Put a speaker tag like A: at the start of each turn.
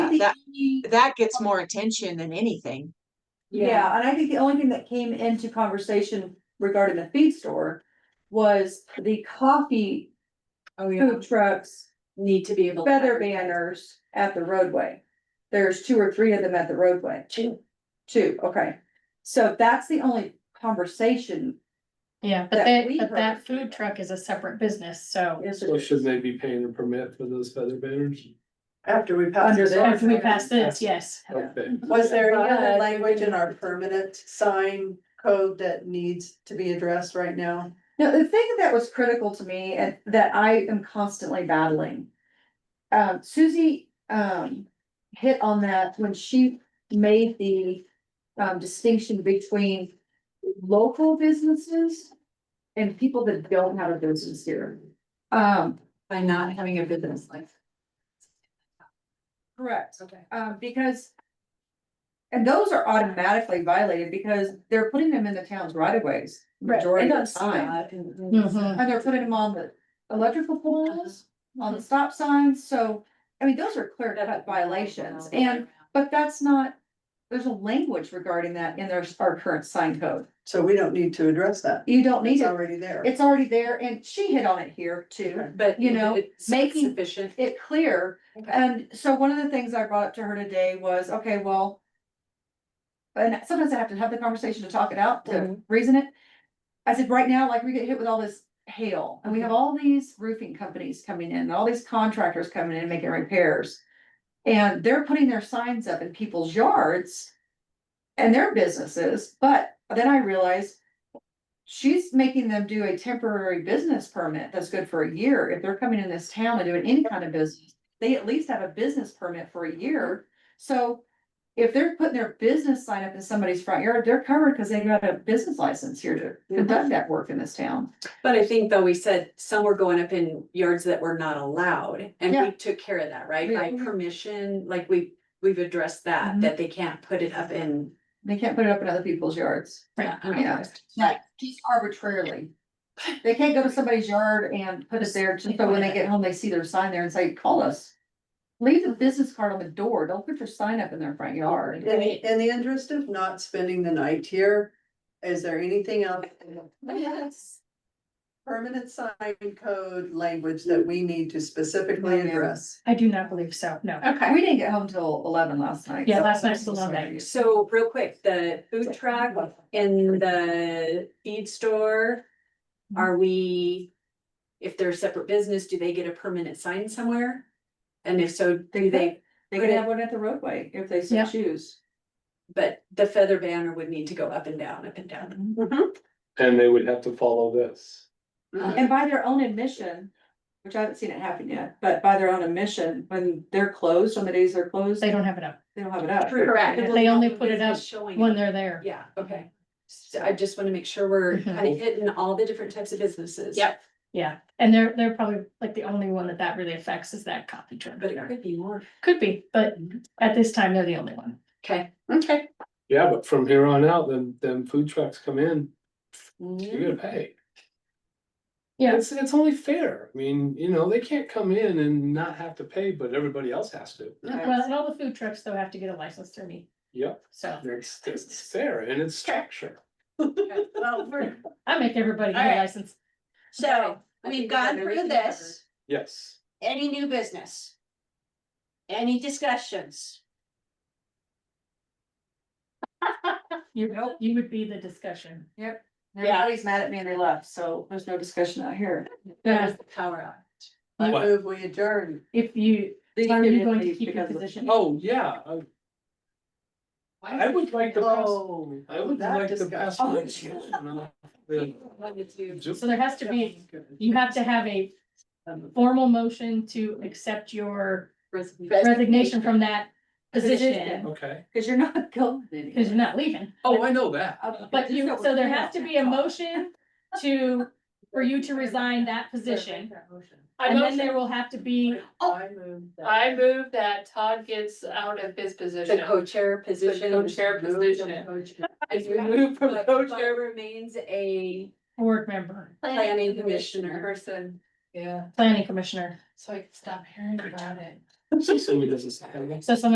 A: that-
B: he-
A: That gets more attention than anything.
B: Yeah, and I think the only thing that came into conversation regarding the feed store was the coffee
C: Oh, yeah,
B: food trucks,
C: need to be able. to
B: feather
C: advertise.
B: banners at the roadway. There's two or three of them at the roadway.
C: Two.
B: Two, okay. So that's the only conversation.
D: Yeah, but
B: that
D: that,
B: we
D: but that
B: heard.
D: food truck is a separate business, so
B: is
E: So should they be paying a permit for those feather banners?
F: After we pass
B: Under
F: this,
B: the.
D: after we pass this, yes.
E: Okay.
F: was there any
C: But-
F: other language in our permanent sign code that needs to be addressed right now?
B: No, the thing that was critical to me and that I am constantly battling. Um, Susie, um, hit on that when she made the, um, distinction between local businesses and people that don't have a business here. Um,
C: By not having a business license.
B: correct.
C: Okay.
B: Um, because. And those are automatically violated because they're putting them in the town's right of ways. Majority of the time. Mm-hmm.
D: Mhm.
B: And they're putting them on the electrical poles, on the stop signs, so, I mean, those are clear cut violations, and, but that's not. There's a language regarding that in their, our current sign code,
F: So we don't need to address that.
B: you don't need
F: It's
B: it,
F: already there.
B: it's already there, and she hit on it here too.
C: But
B: you know,
C: it's
B: making-
C: Sufficient.
B: It clear, and so one of the things I brought up to her today was, okay, well. And sometimes I have to have the conversation to talk it out, to reason it. I said, right now, like, we get hit with all this hail, and we have all these roofing companies coming in, and all these contractors coming in, making repairs. And they're putting their signs up in people's yards. And their businesses, but then I realized. She's making them do a temporary business permit that's good for a year, if they're coming in this town and doing any kind of business. They at least have a business permit for a year, so. If they're putting their business sign up in somebody's front yard, they're covered because they got a business license here to conduct that work in this town.
C: But I think though we said some were going up in yards that were not allowed and
B: Yeah.
C: we took care of that, right? By
B: Mhm.
C: permission, like we, we've addressed that,
B: Mhm.
C: that they can't put it up in. uh,
B: They can't put it up in other people's yards,
D: Right.
B: Yeah. like, just arbitrarily. They can't go to somebody's yard and put it there, just so when they get home, they see their sign there and say, call us. Leave the business card on the door, don't put your sign up in their front yard.
F: In, in the interest of not spending the night here, is there anything else in the
C: Yes.
F: permanent sign code language that we need to specifically
B: No, ma'am.
F: address?
D: I do not believe so, no.
C: Okay.
B: We didn't get home till eleven last night.
D: Yeah,
B: so-
D: last night's the long night.
C: So real quick, the food truck in the feed store, are we? If they're a separate business, do they get a permanent sign somewhere? And if so, do they,
B: They can have one at the roadway if they so
D: Yeah.
B: choose.
C: but the feather banner would need to go up and down, up and down.
B: Mm-hmm.
E: And they would have to follow this.
F: Mm-hmm.
B: And by their own admission, which I haven't seen it happen yet, but by their own admission, when they're closed, on the days they're closed,
D: They
B: they
D: don't have it up
B: don't have it up.
C: Correct.
D: They only put it up
C: Showing
D: when
C: it.
D: they're there.
C: Yeah, okay. So I just wanna make sure we're
D: Mhm.
C: kind of hitting all the different types of businesses.
D: Yep. Yeah, and they're, they're probably like the only one that that really affects is that coffee truck.
C: But it could Mhm. be more.
D: Could be, but at this time, they're the only one.
C: Okay. Okay.
E: Yeah, but from here on out, then, then food trucks come in, you're gonna pay.
D: Yeah.
E: It's, it's only fair. I mean, you know, they can't come in and not have to pay, but everybody else has to.
D: Well, and all the food trucks though have to get a license through me,
E: Yep,
D: so
E: it's, it's fair and it's structure.
F: Well, we're-
D: I make everybody get a
G: Alright.
D: license.
G: So
C: I
G: we've
C: think
G: gone
C: we have
G: through
C: everything
G: this,
E: Yes.
G: any new business? Any discussions?
D: You, you would be the discussion.
B: Everybody's mad at me and they left, so there's no discussion out here.
C: That was the power out.
F: I
E: What?
F: move we adjourn.
D: If you, are you going to keep your position?
E: Oh, yeah. I- I would like to pass,
F: Oh,
E: I would
F: that
E: like to pass.
F: discussion.
E: my motion on the-
C: Wanted to-
E: Ju-
D: So there has to be, you have to have a
C: um,
D: formal motion to accept your
C: resignation.
D: resignation from that position.
B: Position.
E: Okay.
B: Cause you're not going anywhere.
D: Cause you're not leaving,
E: Oh, I know that.
B: Uh,
D: but you,
B: just
D: so there
B: we're
D: has to be a
B: clear.
D: motion to, for you to resign that position.
G: I
D: And then
G: motion,
D: there will have to be,
B: Oh.
C: I moved that.
G: I move that Todd gets out of his position.
C: The co-chair position.
G: co-chair
C: is moved from
G: position.
C: co-chair- Is
G: Yeah.
C: removed from
G: But-
C: co-chair remains a
D: board member,
C: planning commissioner.
G: Person, yeah,
D: planning commissioner,
G: so I can stop hearing about it.
E: So we doesn't say.
D: so someone